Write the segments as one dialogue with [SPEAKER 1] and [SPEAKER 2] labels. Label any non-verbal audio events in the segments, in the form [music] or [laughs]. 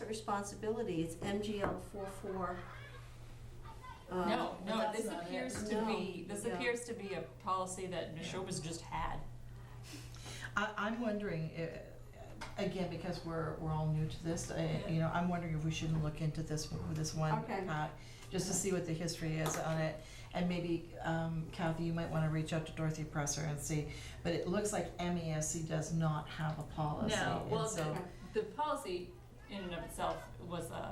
[SPEAKER 1] of responsibility, it's MGL four four. Uh,
[SPEAKER 2] No, no,
[SPEAKER 3] that's
[SPEAKER 2] this
[SPEAKER 3] not it.
[SPEAKER 2] appears to
[SPEAKER 1] No,
[SPEAKER 2] be, this
[SPEAKER 1] no.
[SPEAKER 2] appears to be a policy that Neshoba's just had.
[SPEAKER 3] I, I'm wondering, i- again, because we're, we're all new to this, I- you know, I'm wondering if we shouldn't look into this, one- this one.
[SPEAKER 1] Okay.
[SPEAKER 3] uh, Just to see what the history is on it, and maybe um, Kathy, you might wanna reach out to Dorothy Presser and see, but it looks like MESC does not have a policy,
[SPEAKER 2] No, well,
[SPEAKER 3] and so,
[SPEAKER 2] the, the policy in and of itself was uh,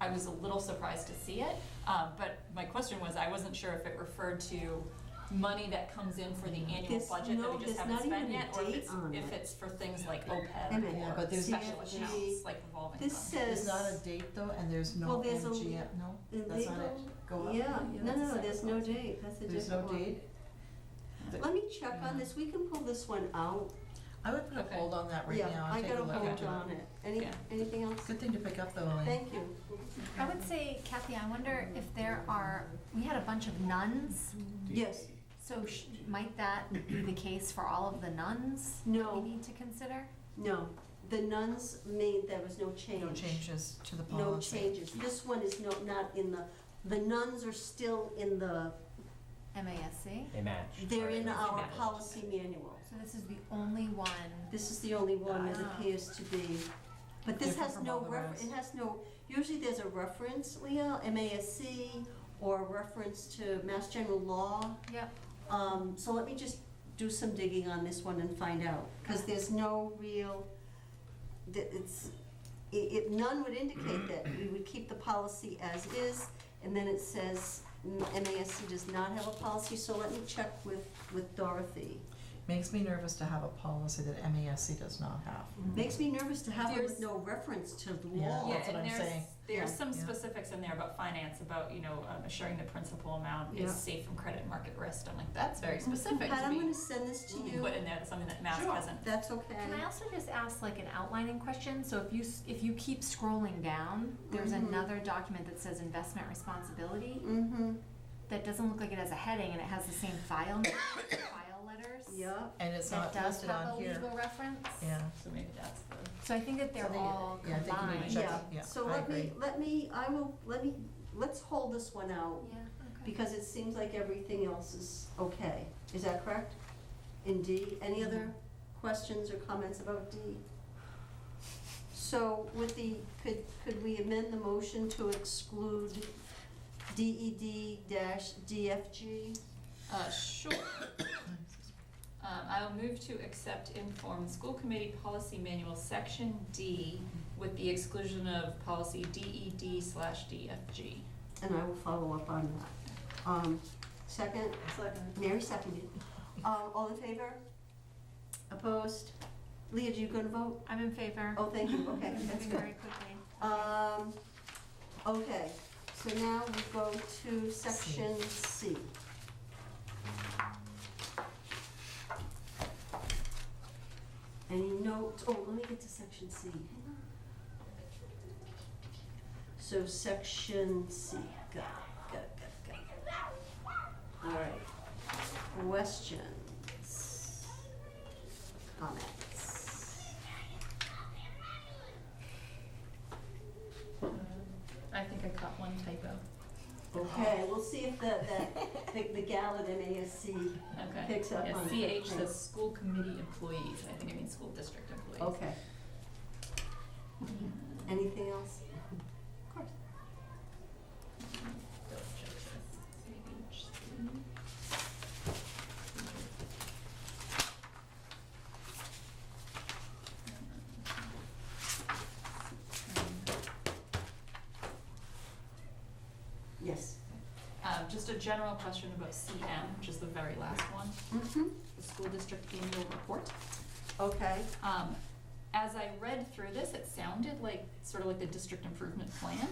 [SPEAKER 2] I was a little surprised to see it, uh, but my question was, I wasn't sure if it referred to money that comes in for the annual
[SPEAKER 1] There's
[SPEAKER 2] budget that
[SPEAKER 1] no-
[SPEAKER 2] we
[SPEAKER 1] there's
[SPEAKER 2] just haven't
[SPEAKER 1] not
[SPEAKER 2] spent
[SPEAKER 1] even a
[SPEAKER 2] yet, or if
[SPEAKER 1] date
[SPEAKER 2] it's,
[SPEAKER 1] on it.
[SPEAKER 2] if it's for things like
[SPEAKER 1] Wait a minute,
[SPEAKER 2] OPEB
[SPEAKER 3] but
[SPEAKER 2] or
[SPEAKER 3] there's-
[SPEAKER 2] special
[SPEAKER 1] CFG
[SPEAKER 2] accounts, like revolving
[SPEAKER 1] This
[SPEAKER 2] funds.
[SPEAKER 3] there's
[SPEAKER 1] says.
[SPEAKER 3] not a date though, and there's no
[SPEAKER 1] Well, there's a-
[SPEAKER 3] MGM, no,
[SPEAKER 1] the
[SPEAKER 3] that's not it,
[SPEAKER 1] legal-
[SPEAKER 3] go up.
[SPEAKER 1] Yeah,
[SPEAKER 2] Yeah,
[SPEAKER 1] no,
[SPEAKER 2] that's a
[SPEAKER 1] no, there's
[SPEAKER 2] separate
[SPEAKER 1] no
[SPEAKER 2] one.
[SPEAKER 1] date, that's a
[SPEAKER 3] There's no
[SPEAKER 1] different one.
[SPEAKER 3] date,
[SPEAKER 1] Let me check on this, we can pull this one out.
[SPEAKER 3] I would put a
[SPEAKER 2] Okay.
[SPEAKER 3] hold on that right now and take a
[SPEAKER 1] Yeah, I
[SPEAKER 3] look
[SPEAKER 1] got a hold
[SPEAKER 3] into it.
[SPEAKER 1] on it. Any,
[SPEAKER 2] Yeah.
[SPEAKER 1] anything else?
[SPEAKER 3] Good thing to pick up though, Elaine.
[SPEAKER 1] Thank you.
[SPEAKER 4] I would say, Kathy, I wonder if there are, we had a bunch of nuns,
[SPEAKER 1] Yes,
[SPEAKER 4] so sh- might that be the case for all of the nuns?
[SPEAKER 1] No.
[SPEAKER 4] We need to consider?
[SPEAKER 1] no, the nuns made, there was no change.
[SPEAKER 3] No changes to the
[SPEAKER 1] No
[SPEAKER 3] policy.
[SPEAKER 1] changes. This one is no, not in the, the nuns are still in the,
[SPEAKER 4] MASC?
[SPEAKER 5] They match.
[SPEAKER 1] they're
[SPEAKER 5] Sorry,
[SPEAKER 1] in
[SPEAKER 5] they
[SPEAKER 1] our
[SPEAKER 5] match.
[SPEAKER 1] policy manual.
[SPEAKER 4] So this is the only one,
[SPEAKER 1] This is the only one that
[SPEAKER 4] Ah.
[SPEAKER 1] appears to be, but this
[SPEAKER 3] Different
[SPEAKER 1] has
[SPEAKER 3] from
[SPEAKER 1] no
[SPEAKER 3] all the
[SPEAKER 1] refer,
[SPEAKER 3] rest.
[SPEAKER 1] it has no, usually there's a reference, Leah, MASC, or a reference to Mass General Law.
[SPEAKER 4] yep,
[SPEAKER 1] Um, so let me just do some digging on this one and find out, because there's no real, th- it's, i it, none would indicate that we would keep the policy as is, and then it says mm, MASC does not have a policy, so let me check with, with Dorothy.
[SPEAKER 3] Makes me nervous to have a policy that MASC does not have.
[SPEAKER 1] Makes me nervous to have it with
[SPEAKER 2] There's-
[SPEAKER 1] no reference to the
[SPEAKER 3] Yeah.
[SPEAKER 1] law.
[SPEAKER 2] Yeah,
[SPEAKER 3] That's what
[SPEAKER 2] and
[SPEAKER 3] I'm
[SPEAKER 2] there's,
[SPEAKER 3] saying.
[SPEAKER 2] there's
[SPEAKER 3] Yeah.
[SPEAKER 2] some
[SPEAKER 3] Yeah.
[SPEAKER 2] specifics in there about finance, about, you know, um, assuring the principal amount
[SPEAKER 1] Yeah.
[SPEAKER 2] is safe from credit market risk. I'm like, that's very
[SPEAKER 3] Mm-hmm.
[SPEAKER 2] specific
[SPEAKER 1] Pat,
[SPEAKER 2] to
[SPEAKER 1] I'm
[SPEAKER 2] be
[SPEAKER 1] gonna send this to you.
[SPEAKER 2] put in there, something that Mass
[SPEAKER 1] Sure,
[SPEAKER 2] hasn't.
[SPEAKER 1] That's okay.
[SPEAKER 4] Can I also just ask like an outlining question? So if you, s- if you keep scrolling down, there's
[SPEAKER 3] Mm-hmm.
[SPEAKER 1] Mhm.
[SPEAKER 4] another document that says investment responsibility
[SPEAKER 1] Mm-hmm,
[SPEAKER 4] that doesn't look like it has a heading and it has the same file, [coughs] name, file letters.
[SPEAKER 1] yeah.
[SPEAKER 3] And it's
[SPEAKER 4] That
[SPEAKER 3] not
[SPEAKER 4] does
[SPEAKER 3] listed
[SPEAKER 4] have
[SPEAKER 3] on
[SPEAKER 4] a
[SPEAKER 3] here.
[SPEAKER 4] legal reference.
[SPEAKER 3] [laughs] Yeah.
[SPEAKER 2] So maybe that's the.
[SPEAKER 4] So I think that they're
[SPEAKER 3] So they-
[SPEAKER 4] all
[SPEAKER 3] yeah, I think you need to
[SPEAKER 4] combined.
[SPEAKER 3] check
[SPEAKER 1] Yeah,
[SPEAKER 3] yeah,
[SPEAKER 1] so
[SPEAKER 3] I
[SPEAKER 1] let me,
[SPEAKER 3] agree.
[SPEAKER 1] let me, I will, let me, let's hold this one out,
[SPEAKER 4] okay.
[SPEAKER 1] because it seems like everything else is okay. Is that correct? In D, any other questions or comments about D? So with the, could, could we amend the motion to exclude DED dash DFG?
[SPEAKER 2] Uh, sure. Um, I'll move to accept informed school committee policy manual section D with the exclusion of policy DED slash DFG.
[SPEAKER 1] And I will follow up on that. Um, second? Second. Mary seconded. Um, all in favor? Opposed? Leah, do you gonna vote?
[SPEAKER 4] I'm in favor.
[SPEAKER 1] Oh, thank you, okay, that's
[SPEAKER 4] I'm moving
[SPEAKER 1] good.
[SPEAKER 4] very quickly.
[SPEAKER 1] Um, okay, so now we go to section C. Any notes, oh, let me get to section C, hang on. So section C, got, it, got, it, got, it, got. it. All right, questions, comments?
[SPEAKER 2] I think I caught one typo.
[SPEAKER 1] Okay, we'll see if the, the- the, the gal at MASC
[SPEAKER 2] Okay.
[SPEAKER 1] picks up on it.
[SPEAKER 2] Yeah, CH says school committee employees, and I think it means school district employees. Mm-hmm.
[SPEAKER 1] Okay. Anything else? Of course.
[SPEAKER 2] Double check this. CH.
[SPEAKER 1] Yes.
[SPEAKER 2] Um, just a general question about CM, which is the very last one,
[SPEAKER 1] Mm-hmm.
[SPEAKER 2] the school district annual report.
[SPEAKER 1] Okay,
[SPEAKER 2] Um, as I read through this, it sounded like, sort of like the district improvement plan,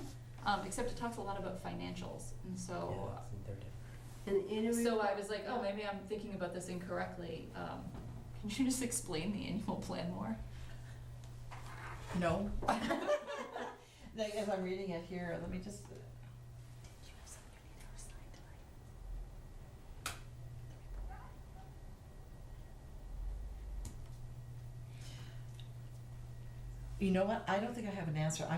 [SPEAKER 2] um, except it talks a lot about financials, and so,
[SPEAKER 5] Yeah, it's- they're different.
[SPEAKER 1] an interview.
[SPEAKER 2] so I was like, oh, maybe I'm thinking about this incorrectly, um, can you just explain the annual plan more?
[SPEAKER 3] No. [laughs] Like, as I'm reading it here, let me just, you know what, I don't think I have an answer,